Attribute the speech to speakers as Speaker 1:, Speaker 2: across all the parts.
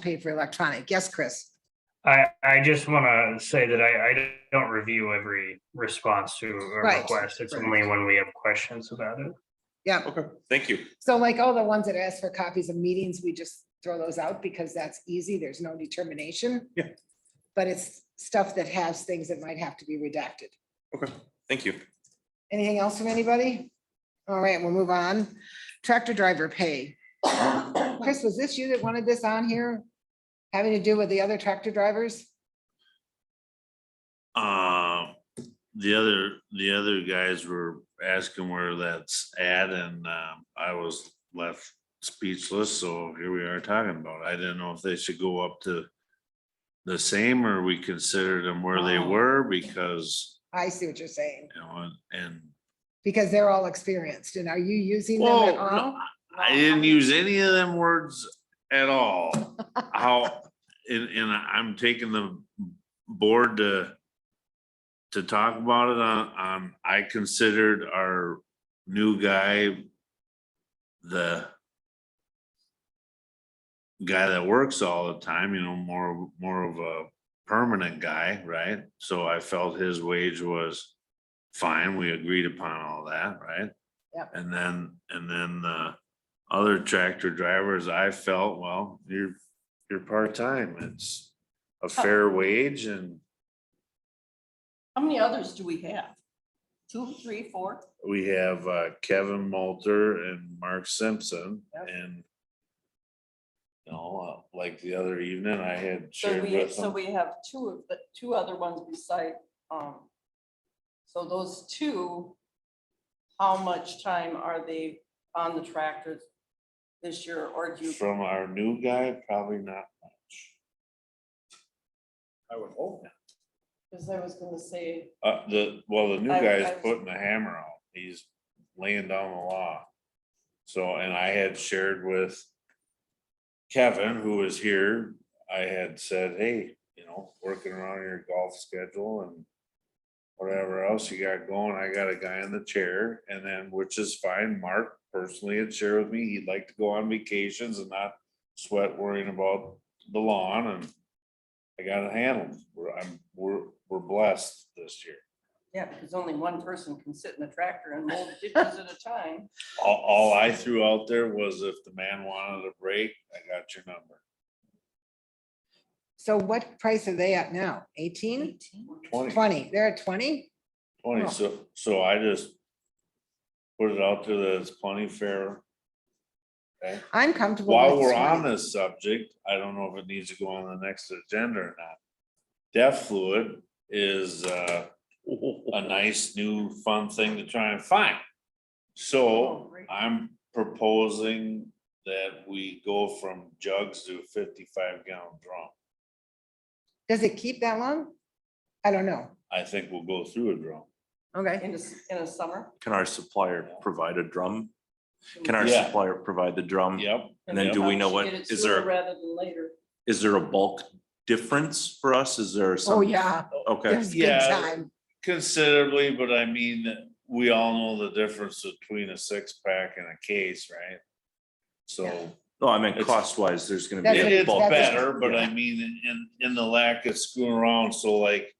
Speaker 1: paid for electronic. Yes, Chris?
Speaker 2: I, I just want to say that I, I don't review every response to a
Speaker 1: Right,
Speaker 2: request. It's
Speaker 1: right.
Speaker 2: only when we have questions about it.
Speaker 1: Yep.
Speaker 3: Okay, thank you.
Speaker 1: So like all the ones that ask for copies of meetings, we just throw those out because that's easy. There's no determination.
Speaker 3: Yeah.
Speaker 1: But it's stuff that has things that might have to be redacted.
Speaker 3: Okay, thank you.
Speaker 1: Anything else from anybody? All right, we'll move on. Tractor driver pay. Chris, was this you that wanted this on here? Having to do with the other tractor drivers?
Speaker 4: Uh, the other, the other guys were asking where that's at and, um, I was left speechless, so here we are talking about. it. I didn't know if they should go up to the same or we considered them where they
Speaker 1: Oh.
Speaker 4: were because,
Speaker 1: I see what you're saying,
Speaker 4: you know, and
Speaker 1: because they're all experienced. And are you using them at
Speaker 4: Whoa, no,
Speaker 1: all?
Speaker 4: I didn't use any of them words at all. How, and, and I'm taking the board to to talk about it on, on, I considered our new guy the guy that works all the time, you know, more, more of a permanent guy, right? So I felt his wage was fine. We agreed upon all that, right?
Speaker 1: Yep.
Speaker 4: And then, and then uh, the other tractor drivers, I felt, well, you're, you're part-time. It's
Speaker 5: Oh.
Speaker 4: a fair wage and
Speaker 5: How many others do we have? Two, three, four?
Speaker 4: we have uh, Kevin Moulter and Mark Simpson
Speaker 5: Yep.
Speaker 4: and you know, uh, like the other evening, I had
Speaker 5: So
Speaker 4: shared
Speaker 5: we,
Speaker 4: with
Speaker 5: so
Speaker 4: them.
Speaker 5: we have two of the, two other ones beside, um, so those two, how much time are they on the tractors this year or do you?
Speaker 4: From our new guy, probably not much.
Speaker 3: I would hope.
Speaker 5: Cause I was gonna say,
Speaker 4: Uh, the, well, the new
Speaker 5: I-
Speaker 4: guy's
Speaker 5: I-
Speaker 4: putting the hammer out. He's laying down the law. So, and I had shared with Kevin, who was here, I had said, hey, you know, working around your golf schedule and whatever else you got going, I got a guy in the chair and then, which is fine. Mark personally had shared with me, he'd like to go on vacations and not sweat worrying about the lawn and I got it handled. We're, I'm, we're, we're blessed this year.
Speaker 5: yeah, because only one person can sit in the tractor and mold ditches at a time.
Speaker 4: All, all I threw out there was if the man wanted a break, I got your number.
Speaker 1: So what price are they at now? Eighteen?
Speaker 4: Twenty,
Speaker 1: Twenty? They're at twenty?
Speaker 4: twenty, so, so I just put it out there that it's plenty fair. Okay,
Speaker 1: I'm comfortable.
Speaker 4: while
Speaker 1: with
Speaker 4: we're
Speaker 1: 20.
Speaker 4: on this subject, I don't know if it needs to go on the next agenda or not. Deaf fluid is, uh, a nice new fun thing to try and find. So
Speaker 5: Oh, great.
Speaker 4: I'm proposing that we go from jugs to fifty-five gallon drum.
Speaker 1: Does it keep that long? I don't know.
Speaker 4: I think we'll go through a drum.
Speaker 1: Okay.
Speaker 5: In a, s- in a summer.
Speaker 6: Can our supplier provide a drum? Can our
Speaker 4: Yeah.
Speaker 6: supplier provide the drum?
Speaker 4: Yep,
Speaker 6: and then do we know what-
Speaker 5: Get it
Speaker 6: is
Speaker 5: sooner
Speaker 6: there-
Speaker 5: Rather than later.
Speaker 6: Is there a bulk difference for us? Is there some?
Speaker 1: Oh, yeah.
Speaker 6: Okay,
Speaker 1: There's good
Speaker 4: Yeah.
Speaker 1: time.
Speaker 4: considerably, but I mean, we all know the difference between a six-pack and a case, right? So
Speaker 6: no, I mean,
Speaker 4: It's-
Speaker 6: cost wise, there's gonna
Speaker 1: That's
Speaker 4: it
Speaker 1: what-
Speaker 6: be. a
Speaker 4: is
Speaker 6: bulk
Speaker 1: that's-
Speaker 4: better, but I mean, in, in the lack of screwing around, so like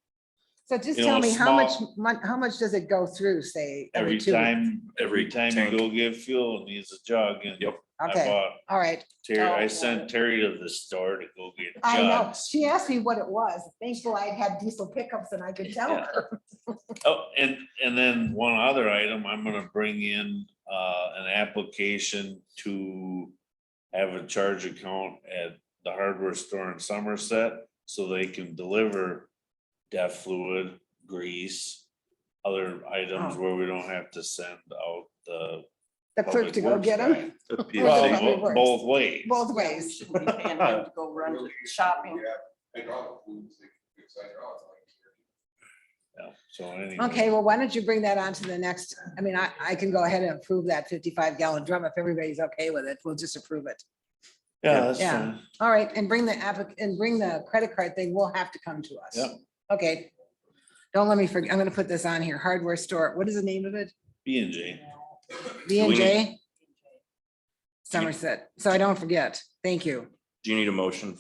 Speaker 1: So just
Speaker 4: you
Speaker 1: tell
Speaker 4: know,
Speaker 1: me, how much,
Speaker 4: small-
Speaker 1: mon- how much does it go through, say?
Speaker 4: every
Speaker 1: two weeks?
Speaker 4: time, every
Speaker 6: Every
Speaker 4: time
Speaker 6: tank.
Speaker 4: you go get fuel, it needs a jug and
Speaker 6: Yep.
Speaker 4: I
Speaker 1: Okay,
Speaker 4: bought
Speaker 1: all right.
Speaker 4: Terry,
Speaker 5: Oh,
Speaker 4: I
Speaker 5: yeah.
Speaker 4: sent Terry to the store to go get
Speaker 1: I know.
Speaker 4: jugs.
Speaker 1: She asked me what it was. Thankfully, I had diesel pickups and I could tell
Speaker 4: Yeah.
Speaker 1: her.
Speaker 4: Oh, and, and then one other item, I'm gonna bring in, uh, an application to have a charge account at the hardware store in Somerset, so they can deliver deaf fluid, grease, other items
Speaker 1: Oh.
Speaker 4: where we don't have to send out the.
Speaker 1: The clerk
Speaker 4: public
Speaker 1: to go
Speaker 4: works
Speaker 1: get
Speaker 4: guy.
Speaker 1: them
Speaker 6: A P and
Speaker 4: Well,
Speaker 6: C.
Speaker 1: Public
Speaker 4: bo-
Speaker 1: Works.
Speaker 4: both ways.
Speaker 1: both
Speaker 5: Yeah, we
Speaker 1: ways.
Speaker 5: shouldn't be paying them to Go run to shopping.
Speaker 7: Hydraulic fluids, they can fix hydraulics, like.
Speaker 4: Yeah, So anyway.
Speaker 1: Okay, well, why don't you bring that on to the next, I mean, I, I can go ahead and approve that fifty-five gallon drum if everybody's okay with it. We'll just approve it.
Speaker 4: Yeah, that's
Speaker 1: Yeah.
Speaker 4: fine.
Speaker 1: All right, and bring the applic, and bring the credit card thing, will have to come to us.
Speaker 4: Yep.
Speaker 1: Okay. Don't let me forget, I'm gonna put this on here, hardware store, what is the name of it?
Speaker 4: B and J.
Speaker 1: B and J
Speaker 5: We-
Speaker 1: Somerset, so I don't forget, thank you.
Speaker 6: Do you need a motion